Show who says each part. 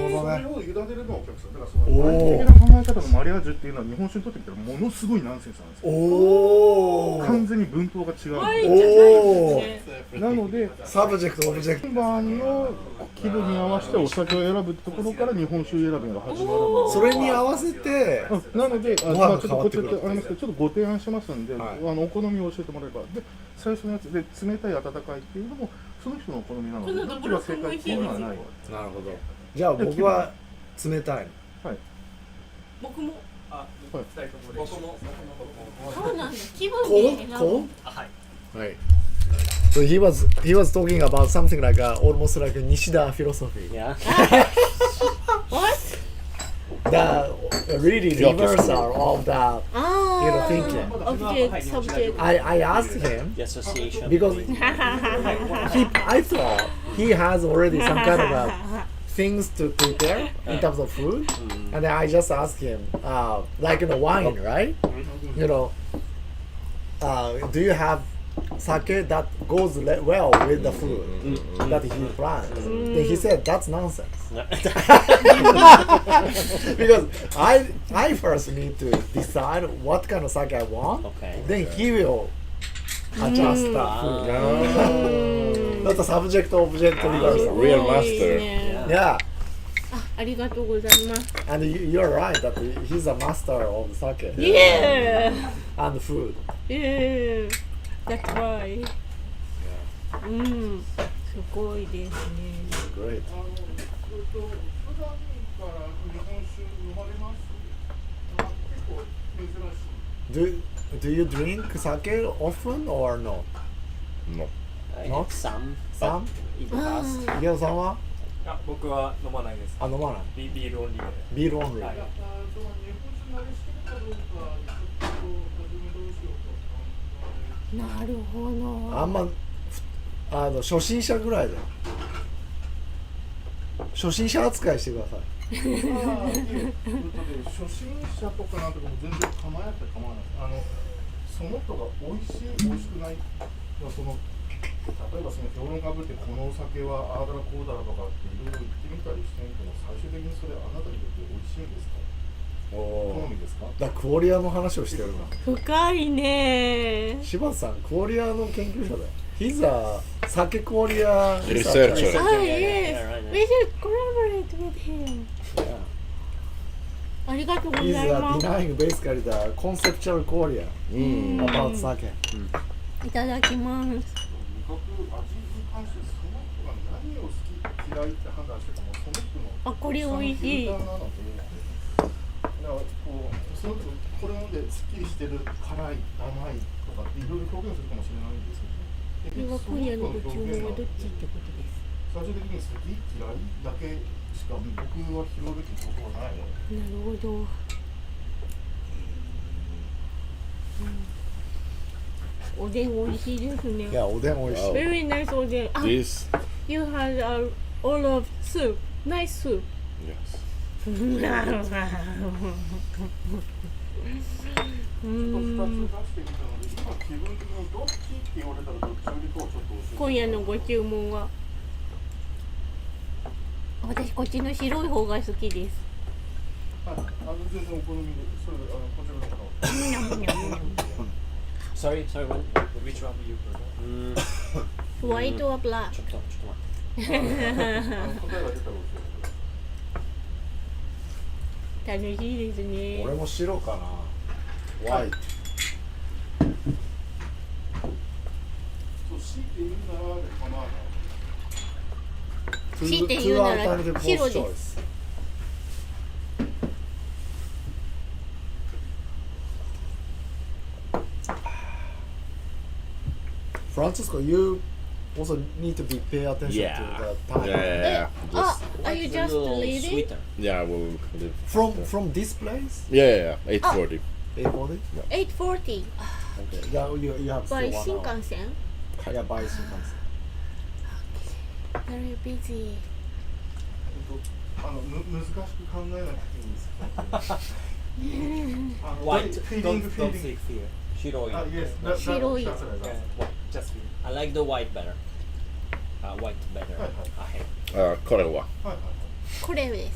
Speaker 1: それを委
Speaker 2: ね
Speaker 1: ねるのはお客さんだからその
Speaker 2: お
Speaker 1: 一
Speaker 2: ー
Speaker 1: 般的な考え方のマリアージュっていうのは日本酒にとってみたらものすごいナンセンスなんですよ
Speaker 2: お
Speaker 1: 完
Speaker 2: お
Speaker 1: 全に文法が違う、
Speaker 3: ワインじゃないですね
Speaker 1: なので
Speaker 2: サブジェクトオブジェク
Speaker 1: メンバーの気分に合わせてお酒を選ぶところから日本酒選びが始まるの
Speaker 2: トそれに合わせて
Speaker 1: うんなので、あ
Speaker 2: ご飯
Speaker 1: まあ
Speaker 2: が
Speaker 1: ちょっと
Speaker 2: 変わ
Speaker 1: こ
Speaker 2: っ
Speaker 1: ってち
Speaker 2: く
Speaker 1: って
Speaker 2: る
Speaker 1: あれますけど、ちょっとご提案しますんで、
Speaker 2: はい
Speaker 1: あのお好みを教えてもらえば、で最初のやつで冷たい温かいっていうのもその人のお好みなので、
Speaker 3: これ
Speaker 1: どっちが正解っていうのはない。
Speaker 2: なるほどじゃあ僕は冷たい
Speaker 3: 僕も
Speaker 4: あ、
Speaker 1: はい
Speaker 4: 二人とも僕も
Speaker 3: そうなんです気分で選ぶ
Speaker 2: cold cold
Speaker 4: あはい
Speaker 2: Right. So he was he was talking about something like a, almost like a Nishida philosophy.
Speaker 5: Yeah.
Speaker 3: What?
Speaker 2: The really reversal of the.
Speaker 3: Ah,
Speaker 2: You know, thinking.
Speaker 3: Object, subject.
Speaker 2: I I asked him
Speaker 5: The association.
Speaker 2: Because-
Speaker 5: between-
Speaker 2: he I thought he has already some kind of a things to prepare in terms of food, and then I just asked him uh, like in the wine, right? You know, uh, do you have sake that goes le- well with the food that he plans? Then he said that's nonsense. because I I first need to decide what kind of sake I want.
Speaker 5: okay.
Speaker 2: Then he will adjust the food. That's a subject object reversal.
Speaker 6: Real
Speaker 3: い
Speaker 6: master.
Speaker 3: いね
Speaker 2: Yeah,
Speaker 3: ありがとうございます。
Speaker 2: and you, you're right that he- he's a master of sake
Speaker 3: イエ
Speaker 2: and food.
Speaker 3: ーイ。イエーイ。That's why. うん、すごいですね。
Speaker 2: Great.
Speaker 1: あのえっと普段から日本酒飲まれますあ結構珍しい
Speaker 2: Do do you drink sake often or no?
Speaker 6: No.
Speaker 5: I
Speaker 2: No?
Speaker 5: had some. but
Speaker 2: さん、
Speaker 5: In the past.
Speaker 2: 池田さんは
Speaker 4: あ、僕は飲まないです
Speaker 2: あ飲まない。
Speaker 4: ビビールオンリーで
Speaker 2: ビールオンリー。
Speaker 4: はい
Speaker 1: あその日本酒慣れしてるかどうかちょっと初めどうしようか
Speaker 3: なるほど。
Speaker 2: あんまふあの初心者ぐらいだよ初心者扱いしてください
Speaker 1: まあいえということで初心者とかなんとかも全然構えなくて構わないですあのその人が美味しい美味しくないまあその例えばその評論家ぶってこのお酒はああだらこうだらとかっていろいろ言ってみたりしてみても最終的にそれあなたにとって美味しいんですか好みですか
Speaker 2: だからクオリアの話をしてるな
Speaker 3: 深いね。
Speaker 2: 柴田さんクオリアの研究者だよ He's a 酒クオリア
Speaker 6: Researcher.
Speaker 5: Yeah,
Speaker 3: あ、イ
Speaker 5: yeah, yeah,
Speaker 3: エス。
Speaker 5: yeah, right, right.
Speaker 3: We should collaborate with him. ありがとうござ
Speaker 2: He's
Speaker 3: い
Speaker 2: a
Speaker 3: ます。
Speaker 2: denying basically the conceptual クオリア about 酒
Speaker 3: いただきます。
Speaker 1: 味覚味に関してその人が何を好き嫌いって判断してもその人の
Speaker 3: あ、これ美味しい
Speaker 1: だ。からこうすごくこれ飲んですっきりしてる辛い甘いとかっていろいろ表現するかもしれないんです
Speaker 3: こ
Speaker 1: け
Speaker 3: れ
Speaker 1: ど
Speaker 3: は今夜のご注文はどっちっ
Speaker 1: 最
Speaker 3: てことです。
Speaker 1: 終的に好き嫌いだけしか僕は拾うべきことはないので
Speaker 3: なるほど。うんおでん美味しいですね
Speaker 2: い。やおでん美味しい
Speaker 3: Very nice おでん。あ、
Speaker 6: This.
Speaker 3: you had a, all of soup. Nice soup.
Speaker 6: Yes.
Speaker 1: ちょっと2つ出してみたので今気分的にどっちって言われたらどっちよりかはちょっと教
Speaker 3: 今夜のご注文は私こっちの白い方が好きです。
Speaker 1: えてはいあの全然お好みでそれあのこちらの方は
Speaker 5: Sorry, sorry, one.
Speaker 4: Which one do you prefer?
Speaker 5: Mm,
Speaker 3: White or black?
Speaker 5: ちょっと、ちょっと待
Speaker 1: あの答えが出たら教えてください
Speaker 3: 楽しいですね。
Speaker 2: 俺も白かな White
Speaker 1: そう強いて言うならで構わない
Speaker 3: 強いて言うなら白です
Speaker 2: フランシスコ you also need to be pay attention
Speaker 6: Yeah.
Speaker 2: to the time
Speaker 6: Yeah, yeah,
Speaker 3: え
Speaker 6: yeah.
Speaker 3: あ
Speaker 6: Just,、
Speaker 3: are you
Speaker 5: It's a
Speaker 3: just
Speaker 5: little
Speaker 3: leaving?
Speaker 5: sweeter.
Speaker 6: yeah, we'll leave.
Speaker 2: from from this place
Speaker 6: Yeah, yeah, yeah. 8.40.
Speaker 2: A40
Speaker 3: 8:40
Speaker 2: okay yeah, you you have
Speaker 3: by
Speaker 2: still one
Speaker 3: 新
Speaker 2: hour
Speaker 3: 幹線
Speaker 2: yeah by 新幹
Speaker 3: Very busy.
Speaker 1: あのむ難しく考えなくていいんです。あの
Speaker 4: White,
Speaker 1: フィーリン
Speaker 4: don't,
Speaker 1: グフィー
Speaker 4: don't
Speaker 1: リング。
Speaker 4: say clear.
Speaker 5: 白い。
Speaker 1: あ、yes, Ah, that- that-
Speaker 3: 白い
Speaker 1: that's right, that's
Speaker 4: Yeah,
Speaker 1: right.
Speaker 4: white, just clear.
Speaker 5: I like the white better. Uh, white better.
Speaker 1: Right, right.
Speaker 5: I hate.
Speaker 6: Uh, Korewa.
Speaker 1: はいはいはい。
Speaker 3: これです。